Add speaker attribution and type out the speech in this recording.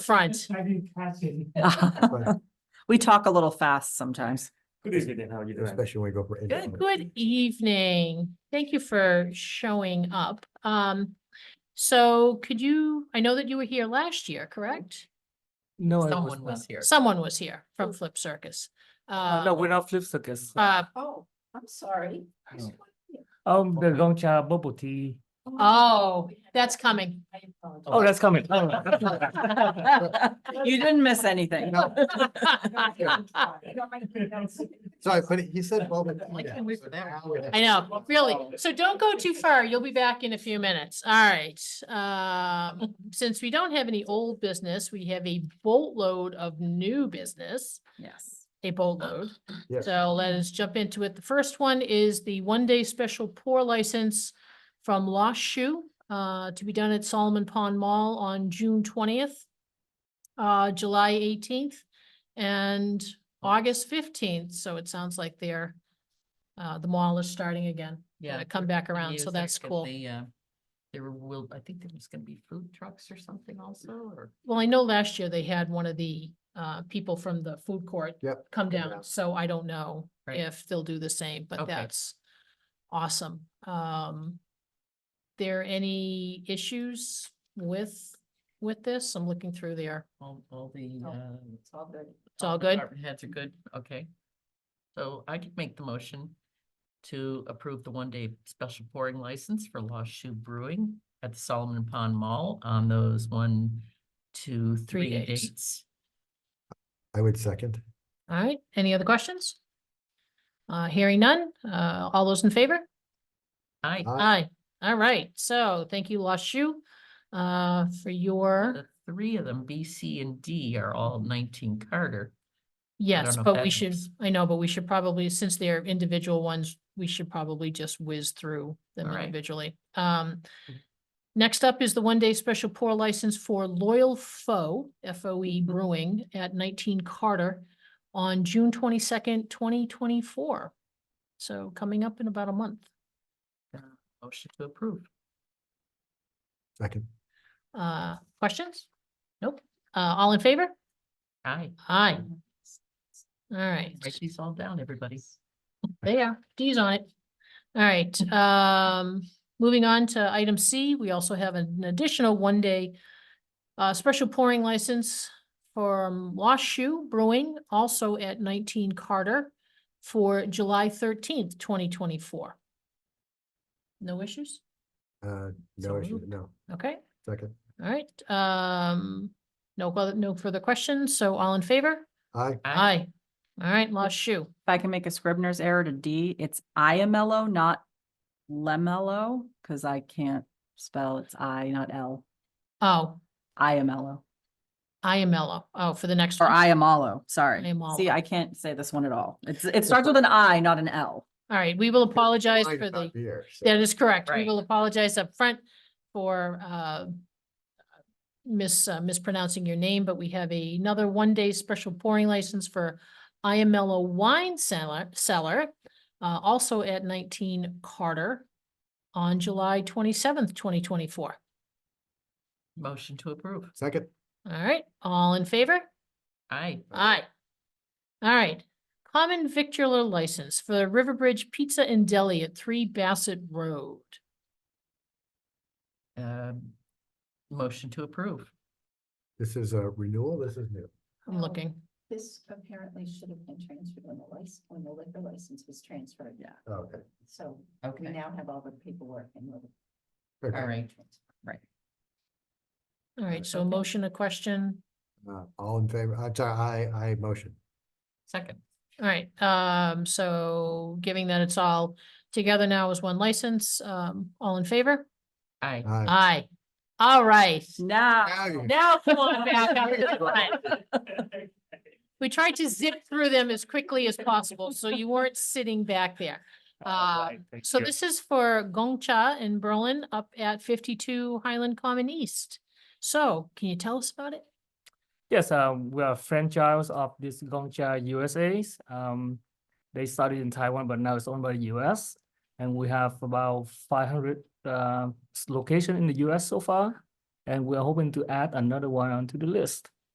Speaker 1: front.
Speaker 2: I didn't catch it.
Speaker 3: We talk a little fast sometimes.
Speaker 4: Good evening, Dan. how are you doing?
Speaker 5: Especially when we go for.
Speaker 3: Good.
Speaker 1: Good evening. Thank you for showing up. Um, so could you, I know that you were here last year, correct?
Speaker 4: No, I was
Speaker 6: Someone
Speaker 4: not.
Speaker 6: was here.
Speaker 1: Someone was here from Flip Circus.
Speaker 4: Uh, No,
Speaker 1: Uh,
Speaker 4: we're not flip circus.
Speaker 1: uh,
Speaker 6: Oh, I'm sorry.
Speaker 4: No. Um, the Gongcha bubble tea.
Speaker 1: oh, that's coming.
Speaker 4: Oh, that's coming. Oh.
Speaker 3: You didn't miss anything.
Speaker 5: Sorry, but he said. bubble tea
Speaker 6: Like,
Speaker 5: now,
Speaker 6: can we-
Speaker 5: so now we're-
Speaker 1: I know, really. So don't go too far. You'll be back in a few minutes. All right. Um, since we don't have any old business, we have a boatload of new business.
Speaker 3: Yes.
Speaker 1: a boatload.
Speaker 5: Yes.
Speaker 1: So let us jump into it. The first one is the one-day special pour license from Lost Shoe uh, to be done at Solomon Pond Mall on June twentieth, uh, July eighteenth, and August fifteenth. So it sounds like they're uh, the mall is starting again.
Speaker 6: Yeah.
Speaker 1: Gonna come back around, so
Speaker 6: Years
Speaker 1: that's
Speaker 6: after
Speaker 1: cool.
Speaker 6: they, uh, There will, I think there was gonna be food trucks or something also, or.
Speaker 1: Well, I know last year they had one of the uh, people from the food court
Speaker 5: Yep.
Speaker 1: come
Speaker 5: Come
Speaker 1: down,
Speaker 5: down.
Speaker 1: so I don't know
Speaker 6: Right.
Speaker 1: if they'll do the same, but
Speaker 6: Okay.
Speaker 1: that's awesome. Um, there any issues with, with this? I'm looking through there.
Speaker 6: All, all the,
Speaker 1: No,
Speaker 6: uh. It's all good.
Speaker 1: It's all good?
Speaker 6: Department heads are good, okay. So I could make the motion to approve the one-day special pouring license for Lost Shoe Brewing at the Solomon Pond Mall on those one, two,
Speaker 1: Three
Speaker 6: three
Speaker 1: days.
Speaker 6: dates.
Speaker 5: I would second.
Speaker 1: All right, any other questions? Uh, hearing none, uh, all those in favor?
Speaker 6: Aye.
Speaker 5: Aye.
Speaker 1: Aye, all right, so thank you, Lashu, uh, for your,
Speaker 6: The three of them, B, C, and D are all nineteen Carter.
Speaker 1: yes,
Speaker 6: know if
Speaker 1: but
Speaker 6: that
Speaker 1: we should,
Speaker 6: helps.
Speaker 1: I know, but we should probably, since they're individual ones, we should probably just whiz through them
Speaker 6: All right.
Speaker 1: individually. Um, next up is the one-day special pour license for Loyal Foe, F O
Speaker 6: Mm-hmm.
Speaker 1: E Brewing at nineteen Carter on June twenty-second, twenty twenty-four. So coming up in about a month.
Speaker 6: Motion to approve.
Speaker 5: Second.
Speaker 1: Uh, questions? Nope. Uh, all in favor?
Speaker 6: Aye.
Speaker 1: Aye. All right,
Speaker 6: Write these all down, everybody.
Speaker 1: they are, D's on it. All right, um, moving on to item C, we also have an additional one-day uh, special pouring license from Lost Shoe Brewing, also at nineteen Carter for July thirteenth, twenty twenty-four. No issues?
Speaker 5: Uh,
Speaker 1: So
Speaker 5: no issue,
Speaker 1: moved.
Speaker 5: no,
Speaker 1: Okay,
Speaker 5: second.
Speaker 1: all right, um, no, other- no further questions, so all in favor?
Speaker 5: I,
Speaker 1: Aye. All right, Lost Shoe.
Speaker 3: If I can make a Scribner's error to D, it's Iamello, not E Lemello, because I can't spell it's I, not L.
Speaker 1: Oh,
Speaker 3: Iamello
Speaker 1: Iamello. Oh, for the next
Speaker 3: or
Speaker 1: one.
Speaker 3: Iamalo, sorry.
Speaker 1: Iamallo.
Speaker 3: See, I can't say this one at all. It's, it starts with an I, not an L.
Speaker 1: All right, we will apologize
Speaker 5: Mine
Speaker 1: for
Speaker 5: is
Speaker 1: the,
Speaker 5: not Here. so-
Speaker 1: that is correct. We
Speaker 6: Right.
Speaker 1: will apologize up front for uh mis uh, mispronouncing your name, but we have a- another one-day special pouring license for Iamello Wine Cellar, Cellar, uh, also at nineteen Carter on July twenty-seventh, twenty twenty-four.
Speaker 6: Motion to approve.
Speaker 5: Second,
Speaker 1: All right, all in favor?
Speaker 6: Aye.
Speaker 1: Aye. All right, common victular license for the Riverbridge Pizza and Deli at Three Bassett Road.
Speaker 6: Um, motion to approve.
Speaker 5: this is a renewal, this is new.
Speaker 1: I'm
Speaker 3: Oh.
Speaker 7: No.
Speaker 1: looking.
Speaker 7: This apparently should have been transferred when the license, when the liquor license was transferred. Yeah.
Speaker 5: Okay.
Speaker 7: So we
Speaker 6: Okay,
Speaker 7: now have all the paperwork and. the-
Speaker 5: Okay.
Speaker 6: all right.
Speaker 1: All right, so a motion, a question.
Speaker 5: Uh, all in favor, I'm sorry, I, I motion.
Speaker 6: Second.
Speaker 1: All right, um, so giving that it's all together now as one license, um, all in favor?
Speaker 6: Aye.
Speaker 5: Aye.
Speaker 1: Aye. All right,
Speaker 4: Mm.
Speaker 3: Now,
Speaker 5: Aye.
Speaker 1: now come on back up to the front. We tried to zip through them as quickly as possible, so you weren't sitting back there.
Speaker 4: All right,
Speaker 1: Um,
Speaker 4: thank
Speaker 1: So
Speaker 4: you.
Speaker 1: this is for Gongcha in Berlin up at fifty-two Highland Common East. So can you tell us about it?
Speaker 4: Yes, um, we are franchise of this Gongcha USA's. Um, they started in Taiwan, but now it's owned by the US. And we have about five hundred uh s- location in the US so far. And we're hoping to add another one onto the list.